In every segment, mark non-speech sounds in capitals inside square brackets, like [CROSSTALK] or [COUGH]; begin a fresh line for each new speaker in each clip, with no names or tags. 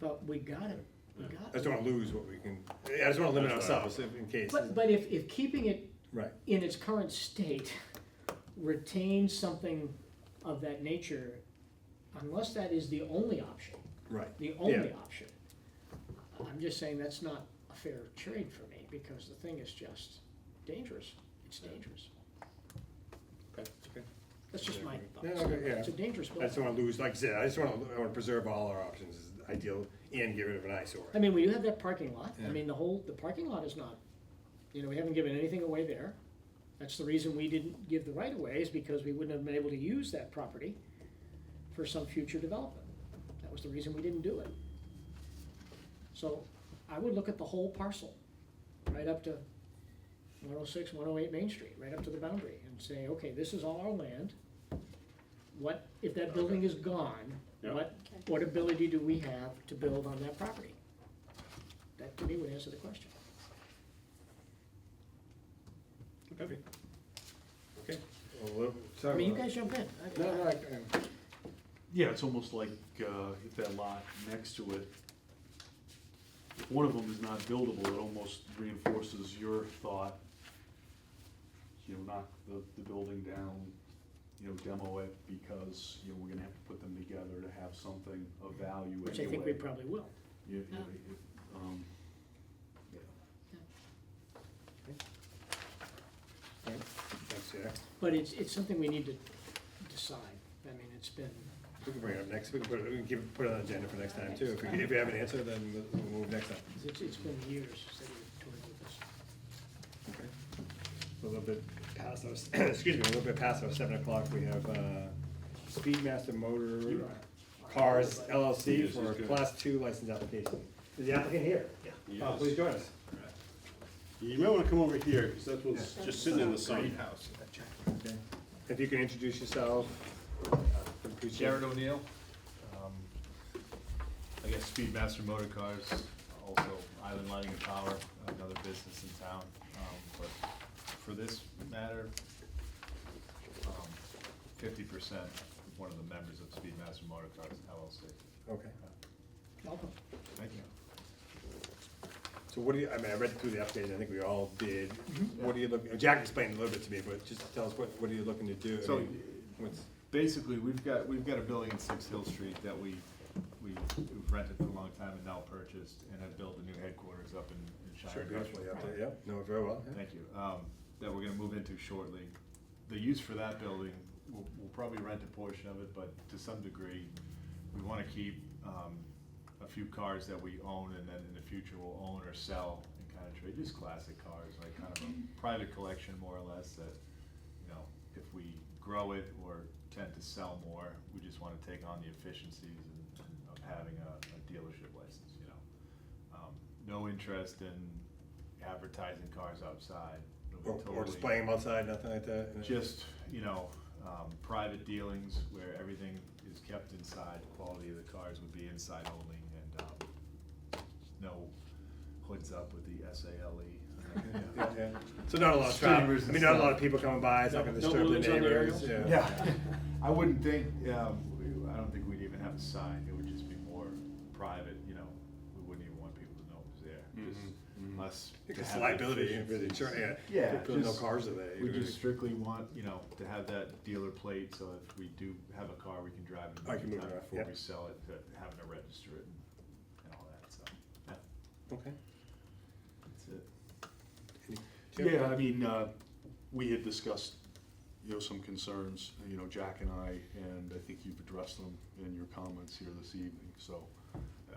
but we gotta, we gotta.
I just don't wanna lose what we can, I just wanna limit ourselves if- in case,
But, but if, if keeping it
right,
in its current state [LAUGHS] retains something of that nature, unless that is the only option,
right.
the only
Yeah.
option. I'm just saying that's not a fair trade for me, because the thing is just dangerous, it's dangerous.
Okay, okay.
That's just my
Yeah,
thoughts.
okay, yeah.
It's a dangerous
I just
building.
don't wanna lose, like I said, I just wanna, I wanna preserve all our options, is ideal, and get rid of an eyesore.
I mean, we do have that parking lot, I
Yeah.
mean, the whole, the parking lot is not, you know, we haven't given anything away there. That's the reason we didn't give the right of way is because we wouldn't have been able to use that property for some future development. That was the reason we didn't do it. So I would look at the whole parcel, right up to 106, 108 Main Street, right up to the boundary and say, okay, this is all our land. What, if that building is gone,
Yeah.
what, what ability do we have to build on that property? That to me would answer the question.
Okay. Okay. Well, we'll
I
talk
mean, you
about it.
guys jump in. I-
No, no, I, I-
Yeah, it's almost like, uh, if that lot next to it, if one of them is not buildable, it almost reinforces your thought, you know, knock the, the building down, you know, demo it, because, you know, we're gonna have to put them together to have something of value anyway.
Which I think we probably will.
Yeah, yeah,
Yeah.
yeah, um, yeah.
all right. Thanks, Jack.
But it's, it's something we need to decide. I mean, it's been,
We can bring it up next, we can put it, we can give, put it on the agenda for next time too, if we, if we have an answer, then we'll- we'll move next time.
it's, it's been years that we've toured with this.
Okay. A little bit past our, [CLEARS THROAT] s- excuse me, a little bit past our seven o'clock, we have, uh, Speedmaster Motor Cars LLC
Yes,
for a
he's good.
class two license application. Is the applicant here?
Yes.
Uh, Please join us.
You might wanna come over here, cause that one's just sitting in the sun.
Okay. If you can introduce yourself. I'd appreciate it.
Jared O'Neill. um, I guess Speedmaster Motor Cars, also Island Lighting and Power, another business in town. um, But for this matter, um, fifty percent, one of the members of Speedmaster Motor Cars LLC.
Okay.
Welcome.
Thank you.
So what do you, I mean, I read through the update, I think we all did.
Mm-hmm.
What do you look, Jack explained a little bit to me, but just tell us, what, what are you looking to do? I
So-
mean, What's,
Basically, we've got, we've got a building in Six Hill Street that we, we- we've rented for a long time and now purchased and have built a new headquarters up in in
sure,
Shire.
beautifully up there, yeah, no, very well, yeah.
Thank you, um, that we're gonna move into shortly. The use for that building, we'll, we'll probably rent a portion of it, but to some degree, we wanna keep, um, a few cars that we own and then in the future we'll own or sell and kinda trade, just classic cars, like kind of a private collection more or less that, you know, if we grow it or tend to sell more, we just wanna take on the efficiencies and- and of having a, a dealership license, you know? Um, No interest in advertising cars outside. It'll be
Or, or
totally-
displaying them outside, nothing like that? and-
Just, you know, um, private dealings where everything is kept inside, quality of the cars would be inside only and, um, no hoods up with the S A L E.
[LAUGHS]
[LAUGHS]
Yeah, yeah. So not a lot of traffic,
Streamers
I
and
mean, not a lot
stuff.
of people coming by, it's not gonna
No- no
disturb the
balloons on the
neighbors,
aerials?
yeah.
Yeah, [LAUGHS] I wouldn't think, um, we- I don't think we'd even have a sign, it would just be more private, you know, we wouldn't even want people to know it was
Mm-hmm,
there, just us. to
Because
have the
liability, with
efficiencies.
insurance, yeah.
Yeah,
People know
just-
cars are there.
We
you know.
just strictly want, you know, to have that dealer plate, so if we do have a car, we can drive it. in the
I can move it
meantime
around,
Before
yeah.
we sell it, to having to register it and- and all that, so, yeah,
Okay.
that's it.
Do you have-
Yeah, I mean, uh, we had discussed, you know, some concerns, you know, Jack and I, and I think you've addressed them in your comments here this evening, so,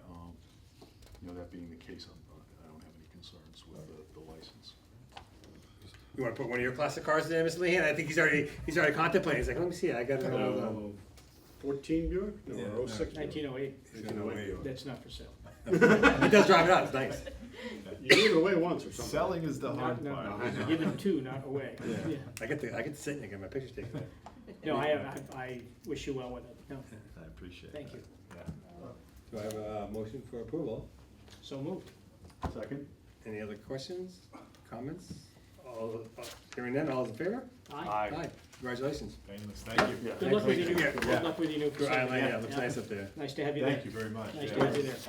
um, you know, that being the case, I'm, not- I don't have any concerns with the, the license.
You wanna put one of your classic cars in there, Mr. Lehan? I think he's already, he's already contemplating, he's like, let me see, I got it. hold on."
Uh, Fourteen Buick?
Yeah,
No, oh six Buick.
um, Nineteen oh eight,
He's gonna wait.
that's not for sale.
Oh.
He does drive it out, it's nice.
You gave it away once or something.
Selling is the
Not,
hard
no,
part.
no, give them two, not away. Yeah.
I get to, I get to sit and get my pictures taken.
No, I, I, I wish you well with it, no,
[LAUGHS] I appreciate it.
thank you.
Do I have a uh, motion for approval?
So moved.
Second?
Any other questions, comments? All, uh, hearing none, all is in favor?
Aye.
Congratulations.
Painless, thank you.
Yeah.
Good luck with your new,
Yeah.
good luck with your new
Good
facility.
island, yeah, looks nice up there.
Nice to have you there.
Thank you very much.
Nice
Yeah.
to have you there.